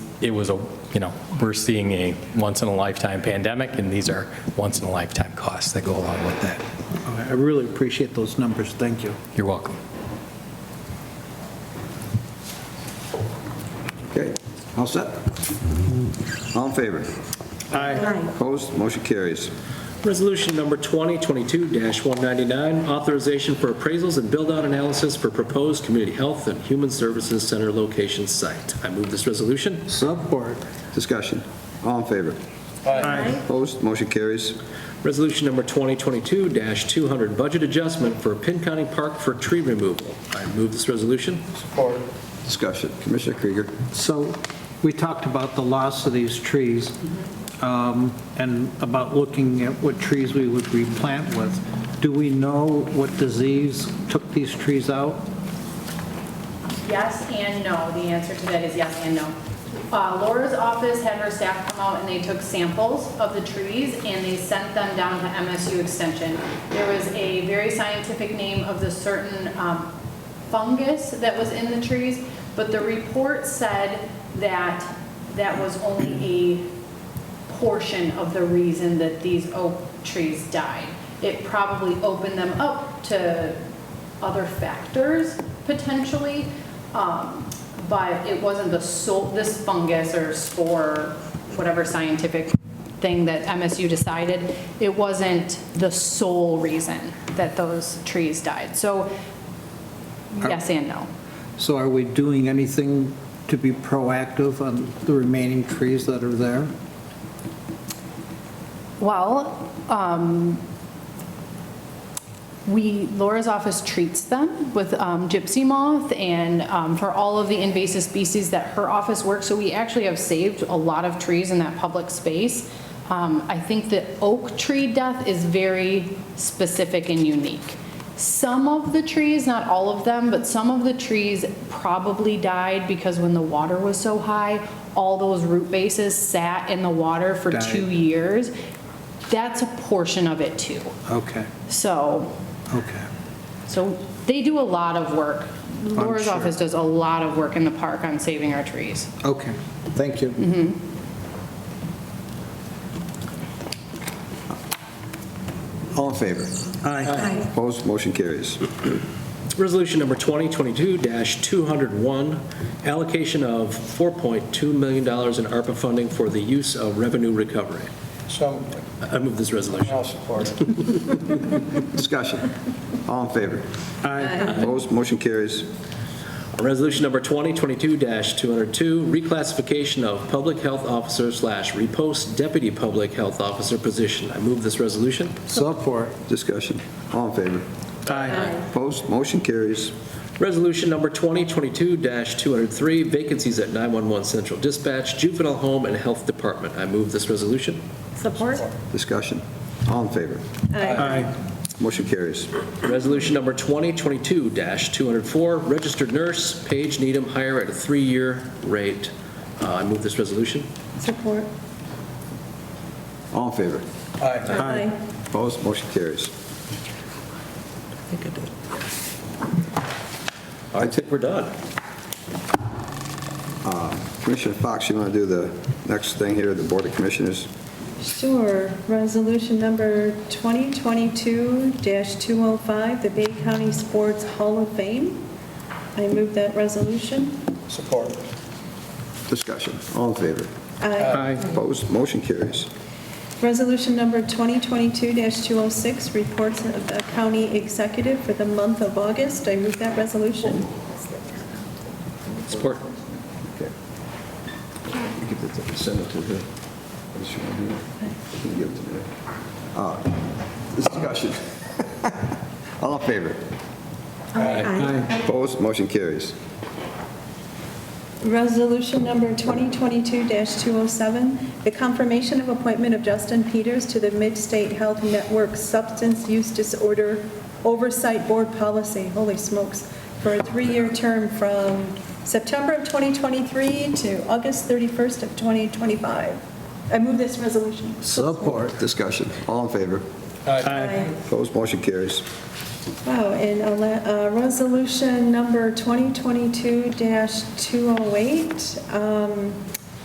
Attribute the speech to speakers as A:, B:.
A: it was a, you know, we're seeing a once-in-a-lifetime pandemic, and these are once-in-a-lifetime costs that go along with that.
B: I I really appreciate those numbers, thank you.
A: You're welcome.
C: Okay, all set? All in favor?
B: Aye.
C: Opposed? Motion carries.
D: Resolution number 2022-199, authorization for appraisals and build-out analysis for proposed Community Health and Human Services Center location site. I move this resolution.
B: Support.
C: Discussion. All in favor?
B: Aye.
C: Opposed? Motion carries.
D: Resolution number 2022-200, budget adjustment for Pin County Park for tree removal. I move this resolution.
C: Discussion. Commissioner Krieger.
B: So we talked about the loss of these trees um, and about looking at what trees we would replant with. Do we know what disease took these trees out?
E: Yes and no. The answer to that is yes and no. Uh, Laura's office had her staff come out and they took samples of the trees and they sent them down to MSU Extension. There was a very scientific name of the certain um, fungus that was in the trees, but the report said that that was only a portion of the reason that these oak trees died. It probably opened them up to other factors potentially, um, but it wasn't the sole, this fungus or spore, whatever scientific thing that MSU decided, it wasn't the sole reason that those trees died. So yes and no.
B: So are we doing anything to be proactive on the remaining trees that are there?
E: Well, um, we, Laura's office treats them with um, gypsy moth and um, for all of the invasive species that her office works. So we actually have saved a lot of trees in that public space. Um, I think the oak tree death is very specific and unique. Some of the trees, not all of them, but some of the trees probably died because when the water was so high, all those root bases sat in the water for
B: Died.
E: two years. That's a portion of it too.
B: Okay,
E: So
B: okay.
E: so they do a lot of work. Laura's
B: sure.
E: office does a lot of work in the park on saving our trees.
B: Okay, thank you.
C: All in favor?
B: Aye.
C: Opposed? Motion carries.
D: Resolution number 2022-201, allocation of $4.2 million in ARPA funding for the use of revenue recovery.
F: So,
D: I move this resolution.
F: I'll support it.
C: Discussion. All in favor?
B: Aye.
C: Opposed? Motion carries.
D: Resolution number 2022-202, reclassification of public health officer slash repost deputy public health officer position. I move this resolution.
B: Support.
C: Discussion. All in favor?
B: Aye.
C: Opposed? Motion carries.
D: Resolution number 2022-203, vacancies at 911 Central Dispatch, Juvenile Home and Health Department. I move this resolution.
G: Support?
C: Discussion. All in favor?
B: Aye.
C: Motion carries.
D: Resolution number 2022-204, registered nurse, Paige Needham, hire at a three-year rate. Uh, I move this resolution.
G: Support.
C: All in favor?
F: Aye.
G: Aye.
C: Opposed? Motion carries.
D: I think we're done.
C: Uh, Commissioner Fox, you want to do the next thing here, the Board of Commissioners?
G: Sure. Resolution number 2022-205, the Bay County Sports Hall of Fame. I move that resolution.
F: Support.
C: Discussion. All in favor?
G: Aye.
C: Opposed? Motion carries.
G: Resolution number 2022-206, reports of the county executive for the month of August. I move that resolution.
D: Support.
C: Okay. You give it to- Send it to her. Does she want to do it? You can give it to her. Uh, Discussion. All in favor? Opposed? Motion carries.
G: Resolution number 2022-207, the confirmation of appointment of Justin Peters to the Mid-State Health Network Substance Use Disorder Oversight Board Policy, holy smokes, for a three-year term from September of 2023 to August 31st of 2025. I move this resolution.
B: Support.
C: Discussion. All in favor?
G: Aye.
C: Opposed? Motion carries.
G: Wow, and a la- uh, resolution number 2022-208, um,